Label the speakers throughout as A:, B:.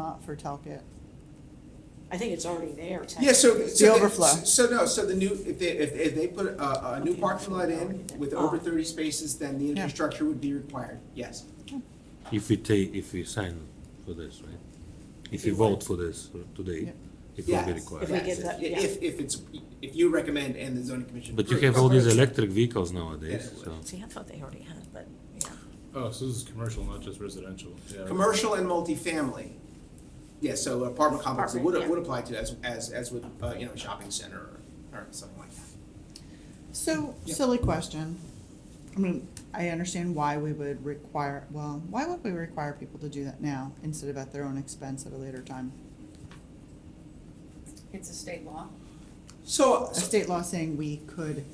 A: out for Talcat?
B: I think it's already there.
C: Yeah, so.
B: technically.
C: so they-
A: overflow.
C: So no, so the new, if they, if, if they put a, a new parking lot in with
B: Oh.
C: over thirty spaces, then the
A: Yeah.
C: infrastructure would be required, yes.
D: If we take, if we sign for this, right? If we
B: you what?
D: vote for this uh, today,
A: Yeah.
D: it will be
C: Yes,
D: required.
B: If we get that-
C: yes. If, if it's, if you recommend and the zoning commission.
D: But you
C: approves.
D: have all these electric vehicles nowadays,
C: Yeah.
D: so.
B: See, I thought they already had, but, yeah.
E: Oh, so this is commercial, not just residential. Yeah.
C: Commercial and multifamily. Yeah, so apartment complexes would,
B: Apartment, yeah.
C: would apply to as, as, as with, uh, you know, shopping center or, or something like that.
A: So,
C: Yeah.
A: silly question. I mean, I understand why we would require, well, why would we require people to do that now instead of at their own expense at a later time?
F: It's a state law.
C: So,
A: A
C: so-
A: state law saying we could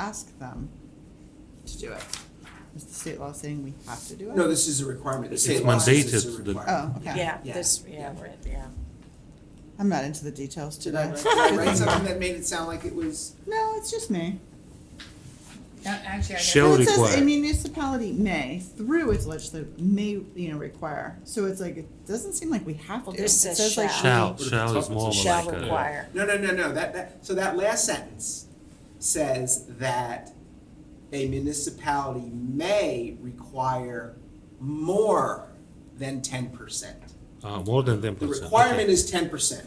A: ask them to do it. Is the state law saying we have to do it?
C: no, this is a requirement. The
D: It's
C: state law says it's
D: mandated
C: a
D: that-
A: Oh,
C: requirement.
A: okay.
B: Yeah,
C: Yeah.
B: this, yeah,
C: Yeah.
B: right, yeah.
A: I'm not into the details
C: Did I,
A: today.
C: did I write something that made it sound like it was?
A: No, it's just me.
F: Uh, Actually, I guess.
D: Shall
A: Well, it says
D: require.
A: A municipality may, through its legislative, may, you know, require. So it's like, it doesn't seem like we have to.
B: Well, this
A: It
B: says
A: says like
B: shall.
D: Shall,
E: What if
D: shall
E: it's
D: is more
E: up-
D: of
B: Shall
D: like a,
B: require.
C: No, no, no, no, that, that, so that last sentence says that a municipality may require more than ten percent.
D: uh, more than ten
C: The
D: percent.
C: requirement is ten percent.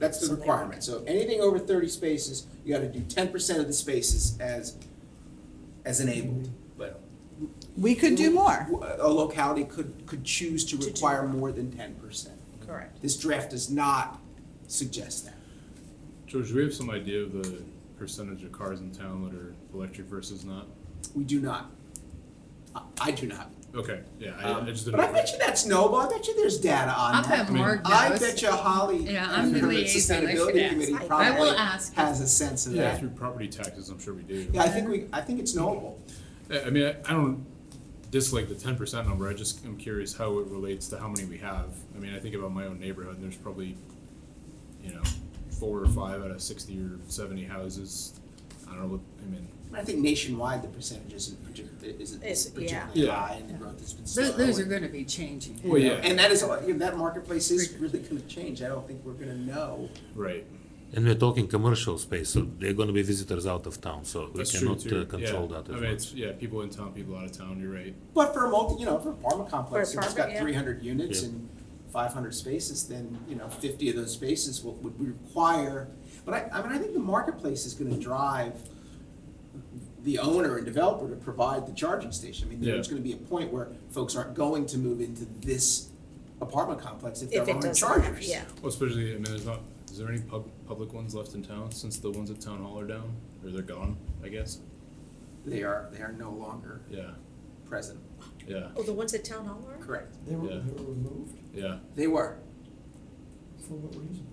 C: That's
B: So
C: the
B: they-
C: requirement, so anything over thirty spaces, you gotta do ten percent of the spaces as, as enabled, but.
A: We could do more.
C: A locality could, could choose to
B: do-
C: require more than ten percent.
F: Correct.
C: This draft does not suggest that.
E: George, do we have some idea of the percentage of cars in town that are electric versus not?
C: We do not. I, I do not.
E: Okay, yeah, I, I
C: Um,
E: just didn't.
C: But I bet you that's Noble, I bet you there's data
F: I'll
C: on
F: bet
C: that.
F: Mark
C: I
F: knows.
C: bet you Holly,
F: Yeah, I'm the
C: under the
F: liaison, I should
C: Sustainability
F: ask.
C: Committee
B: I- I
F: I will
C: probably
F: ask.
C: has a sense of
E: Yeah,
C: that.
E: through property taxes, I'm sure we do.
C: Yeah, I think we, I think it's Noble.
E: I I mean, I, I don't dislike the ten percent number, I just am curious how it relates to how many we have. I mean, I think about my own neighborhood, and there's probably, you know, four or five out of sixty or seventy houses. I don't know what, I mean,
C: I think nationwide, the percentage isn't particularly, isn't
B: It's- yeah.
C: particularly
E: Yeah.
C: high and the growth has been slow.
F: Those, those are
C: and-
F: gonna be changing.
E: Well, yeah.
C: And that is, you know, that marketplace is really gonna change. I don't think we're gonna know.
E: right,
D: And we're talking commercial space, so there are gonna be visitors out of town, so we
E: that's true
D: cannot
E: too.
D: uh, control that
E: Yeah. I
D: as
E: mean,
D: well.
E: it's, yeah, people in town, people out of town, you're right.
C: But for a multi, you know, for an apartment complex, if it's
B: apartment,
C: got
B: yeah.
C: three hundred units
D: Yeah.
C: and five hundred spaces, then, you know, fifty of those spaces will, would require. But I, I mean, I think the marketplace is gonna drive the owner and developer to provide the charging station. I mean, there's
E: Yeah.
C: gonna be a point where folks aren't going to move into this apartment complex if there
B: If it
C: aren't
B: does not have-
C: chargers.
B: yeah.
E: Well, especially, I mean, there's not, is there any pub, public ones left in town since the ones at town hall are down? Or they're gone, I guess?
C: They are, they are no longer
E: Yeah,
C: present,
E: yeah,
B: Oh, the ones at Town Hall are?
C: correct.
G: They were,
E: Yeah.
G: they were removed?
E: yeah.
C: They were.
G: For what reason?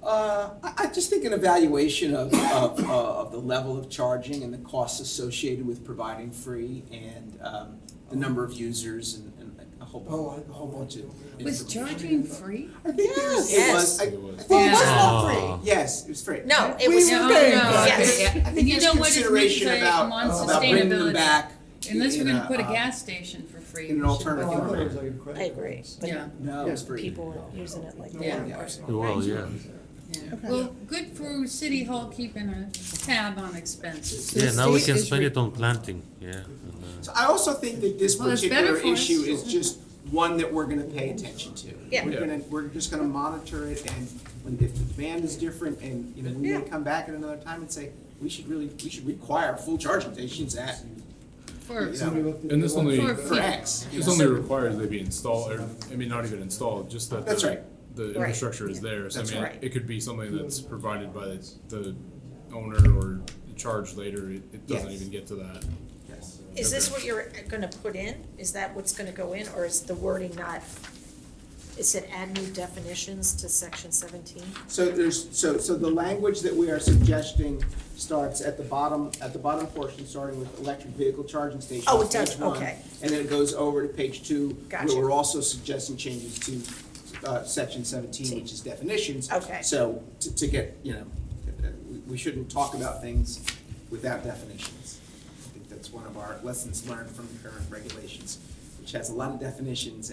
C: Uh, I, I just think an evaluation of, of, uh, of the level of charging and the costs associated with providing free and, um, the number of users and, and a whole,
G: Oh, I-
C: a whole bunch of.
F: Was
C: information.
F: charging free?
C: I think there was, it
B: Yes.
C: was, I,
E: It was.
C: well, it was
D: Yeah.
C: all free, yes, it was free.
B: No, it
C: We
B: was.
C: were
F: No,
C: paying
F: no,
C: for it.
B: yes.
C: I think- I think
F: You
C: there's
F: know what it's meant to
C: consideration
F: say
C: about,
F: on
C: about bringing them
F: sustainability.
C: back.
F: Unless we're
C: in
F: gonna put a
C: uh,
F: gas station for free.
C: in an
F: we should-
C: alternative-
G: Oh, I thought it was like a credit.
B: I agree,
G: card.
B: but
F: Yeah,
C: No, it was free.
B: people are using it like
F: Yeah.
B: that.
D: Well, yeah,
F: yeah.
A: Okay.
F: Well, good for City Hall keeping a tab on expenses.
D: yeah,
A: the
D: now we
A: state
D: can
A: is
D: spend
A: re-
D: it on planting, yeah. and, uh,
C: So I also think that this
F: Well, it's better
C: particular
F: for us.
C: issue is just one that we're gonna pay attention to.
B: Yeah.
C: We're
E: Yeah.
C: gonna, we're just gonna monitor it and when, if the demand is different and, you know, we may
B: Yeah.
C: come back at another time and say, we should really, we should require full charging stations at,
F: For,
C: Yeah.
G: Somebody looked at
E: And this
G: the-
E: only-
F: for
C: for
F: fee.
C: X. you
E: This
C: know.
E: only requires they be installed, or, I mean, not even installed, just that.
C: That's
E: the-
C: right.
E: The
B: Right.
E: infrastructure is there, so I
C: That's
E: mean,
B: right.
E: it could be something
B: Hmm.
E: that's provided by the, the owner or charged later, it, it doesn't
C: Yes.
E: even get to that.
C: Yes.
B: Is this what you're gonna put in? Is that what's gonna go in, or is the wording not? It said add new definitions to section seventeen?
C: So there's, so, so the language that we are suggesting starts at the bottom, at the bottom portion, starting with electric vehicle charging stations.
B: Oh, it does,
C: page one,
B: okay.
C: And then it goes over to page two.
B: Gotcha.
C: Where we're also suggesting changes to, uh, section seventeen, which is definitions.
B: Okay.
C: So to, to get, you know, uh, we- we shouldn't talk about things without definitions. I think that's one of our lessons learned from the current regulations, which has a lot of definitions